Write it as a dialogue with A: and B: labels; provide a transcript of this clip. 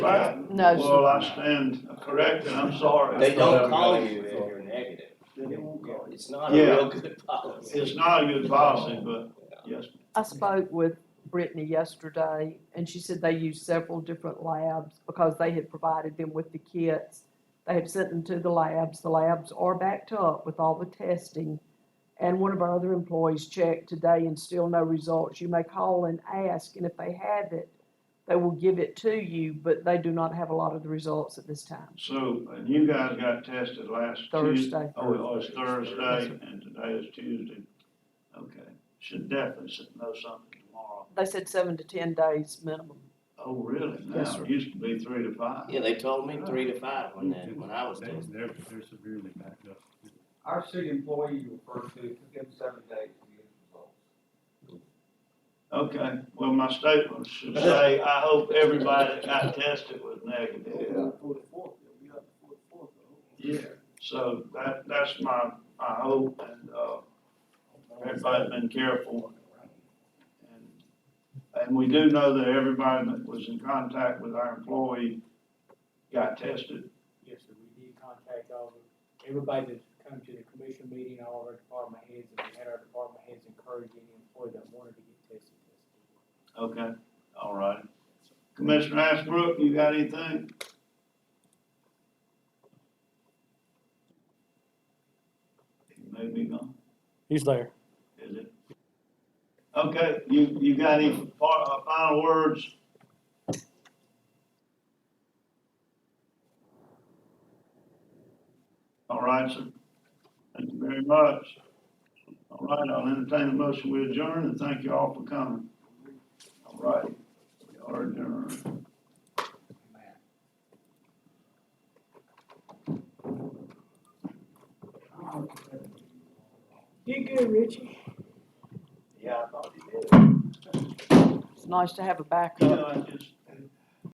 A: Right?
B: No,
A: Well, I stand corrected, I'm sorry.
C: They don't
D: Whatever
C: call
D: value
C: you if
D: it is.
C: you're negative.
A: They won't call you.
C: It's not a
A: Yeah.
C: real good policy.
A: It's not a good policy, but yes,
B: I spoke with Brittany yesterday, and she said they used several different labs because they had provided them with the kits. They had sent them to the labs. The labs are backed up with all the testing. And one of our other employees checked today and still no results. You may call and ask, and if they have it, they will give it to you, but they do not have a lot of the results at this time.
A: so, and you guys got tested last Tuesday.
B: Thursday.
A: Oh, it was Thursday, and today is Tuesday. Okay, should definitely should know something tomorrow.
B: They said seven to ten days minimum.
A: Oh, really? Now,
B: Yes, sir.
A: it used to be three to five.
C: Yeah, they told me three to five when that, when I was
D: They-
C: doing.
D: They're, they're severely backed up.
E: Our city employee you referred to, it took them seven days to get results.
A: Okay, well, my statement should say, I hope everybody that got tested was negative. Yeah, so that, that's my, my hope, and, uh, everybody's been careful. And- And we do know that everybody that was in contact with our employee got tested.
F: Yes, sir, we did contact all the, everybody that's come to the commission meeting, all of our department heads, and we had our department heads encourage any employee that wanted to get tested, tested.
A: Okay, all right. Commissioner Ashbrook, you got anything? He may be gone,
G: He's there.
A: is it? Okay, you, you got any fi- uh, final words? All right, sir. Thank you very much. All right, I'll entertain a motion. We adjourn, and thank you all for coming. All right, we are adjourned.
F: You good, Richie?
C: Yeah, I thought you did.
B: It's nice to have a
A: You
B: backup.
A: know, I just,